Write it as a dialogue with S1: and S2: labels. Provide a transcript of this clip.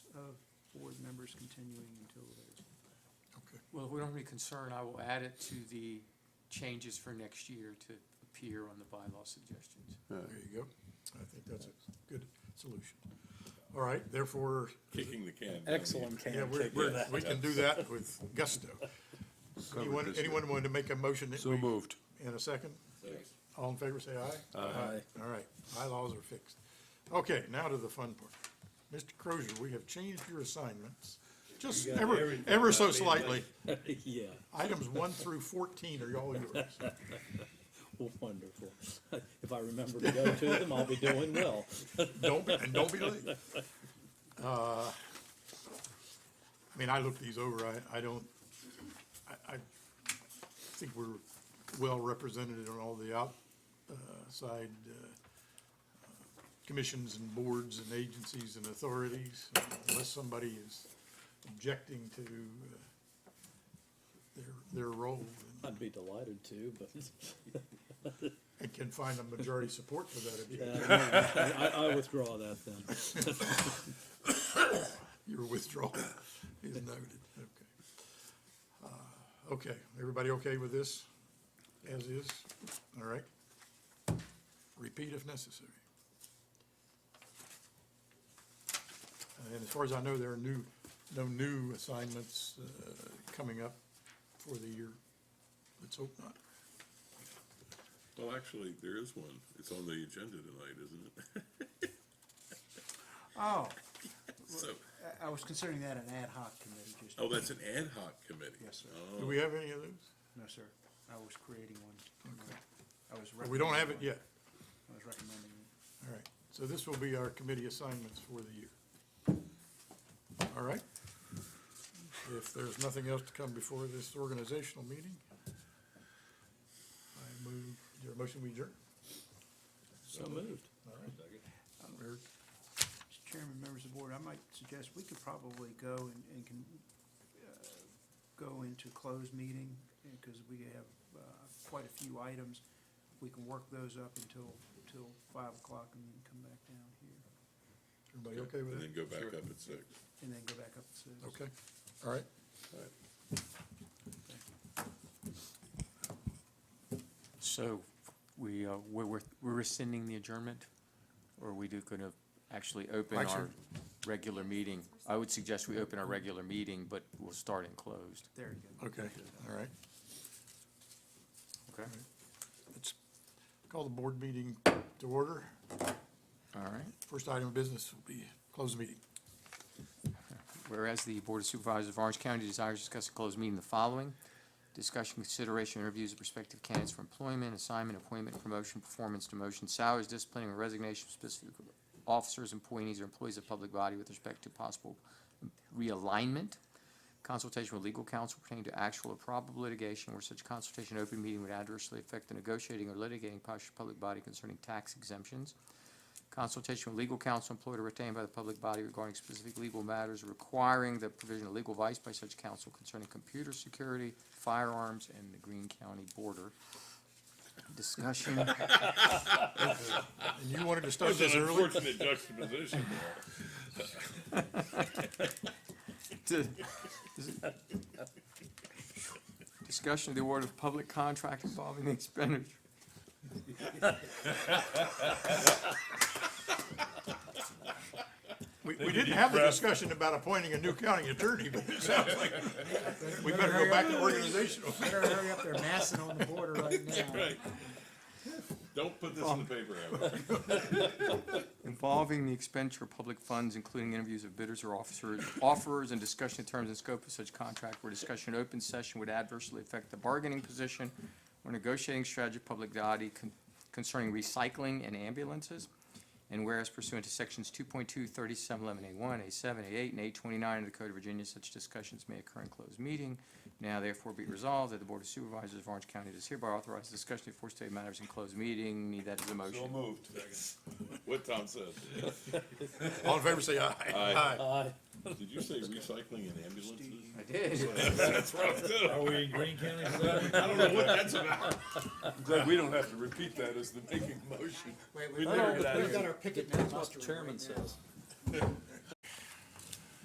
S1: board members continuing until there's.
S2: Okay,
S3: Well, if we don't have any concern, I will add it to the changes for next year to appear on the bylaw suggestions.
S2: there you go. I think that's a good solution. All right, therefore,
S4: Kicking the can.
S5: Excellent
S2: yeah,
S5: can
S2: we're,
S5: kick.
S2: we're, we can do that with gusto. Anyone,
S4: this now.
S2: anyone want to make a motion that
S4: So
S2: we-
S4: moved.
S2: in a second?
S4: Second.
S2: All in favor, say aye.
S5: Aye.
S2: All right, bylaws are fixed. Okay, now to the fun part. Mr. Crozier, we have changed your assignments, just
S5: got
S2: ever,
S5: everything
S2: ever so
S5: about me,
S2: slightly.
S5: Yeah,
S2: Items one through fourteen are all yours.
S5: wonderful. If I remember to go to them, I'll be doing well.
S2: Don't be, and don't be late. Uh, I mean, I looked these over, I, I don't, I, I think we're well represented on all the outside uh, commissions and boards and agencies and authorities, unless somebody is objecting to uh, their, their role
S5: I'd be delighted to, but
S2: and can find a majority support for that objection.
S5: uh, no, I, I withdraw that then.
S2: Your withdrawal is noted, okay. Uh, Okay, everybody okay with this? As is? All right. Repeat if necessary. And as far as I know, there are new, no new assignments uh, coming up for the year. Let's hope not.
S4: Well, actually, there is one. It's on the agenda tonight, isn't it?
S1: Oh,
S4: So,
S1: I, I was considering that an ad hoc committee, just.
S4: oh, that's an ad hoc committee.
S1: Yes, sir.
S2: Do
S4: Oh,
S2: we have any of those?
S1: No, sir. I was creating one.
S2: Okay.
S1: I was.
S2: We don't have it
S1: recommending
S2: yet.
S1: one. I was recommending it.
S2: All right, so this will be our committee assignments for the year. All right? If there's nothing else to come before this organizational meeting, I move, is there a motion we adjourn?
S5: So moved.
S2: All right. Eric,
S1: Mr. Chairman, members of the board, I might suggest we could probably go and, and can, uh, go into closed meeting, because we have, uh, quite a few items. We can work those up until, until five o'clock and then come back down here,
S2: Everybody okay with
S4: and
S2: that?
S4: then go back up at six.
S1: and then go back up to six.
S2: Okay, all right.
S3: So we, uh, we're, we're we're rescinding the adjournment? Or are we do gonna actually open our
S2: Actually-
S3: regular meeting? I would suggest we open our regular meeting, but we'll start in closed.
S1: There you go.
S2: Okay, all right.
S3: Okay.
S2: Let's call the board meeting to order.
S3: All right.
S2: First item of business will be closed meeting.
S3: Whereas the Board of Supervisors of Orange County desires to discuss a closed meeting the following. Discussion, consideration, interviews of prospective candidates for employment, assignment, appointment, promotion, performance, demotion, salaries, disciplining, or resignation of specific officers, employees, or employees of public body with respect to possible realignment. Consultation with legal counsel pertaining to actual or probable litigation where such consultation in open meeting would adversely affect the negotiating or litigating posture of public body concerning tax exemptions. Consultation with legal counsel employed or retained by the public body regarding specific legal matters requiring the provision of legal advice by such counsel concerning computer security, firearms, and the Greene County border. Discussion,
S2: And you wanted to start
S4: That's
S2: this
S4: an
S2: early?
S4: unfortunate juxtaposition there.
S3: di- discussion of the award of public contract involving the expenditure.
S2: We, we didn't have the discussion about appointing a new county attorney, but it sounds like we better go back to organizational.
S1: Better hurry up, they're massing on the border right now.
S4: Right. Don't put this in the paper, Howard.
S3: involving the expenditure of public funds, including interviews of bidders or officers, offerers, and discussion of terms and scope of such contract where discussion in open session would adversely affect the bargaining position or negotiating strategy of public body con- concerning recycling and ambulances. And whereas pursuant to sections 2.2, 3711 A1, A7, A8, and A29 of the Code of Virginia, such discussions may occur in closed meeting. Now therefore be resolved that the Board of Supervisors of Orange County does hereby authorize discussion of four state matters in closed meeting. Need that as a motion.
S4: So moved. What Tom said.
S2: All in favor, say aye.
S4: Aye.
S6: Uh,
S5: Aye.
S4: Did you say recycling and ambulances?
S3: I did.
S4: That's what I'm doing.
S6: Are we in Green County? Is that-
S4: I don't know what that's about. I'm glad we don't have to repeat that as the making motion.
S1: Wait,
S4: We
S1: we've got our, we've got our picket.
S5: That's what the chairman says.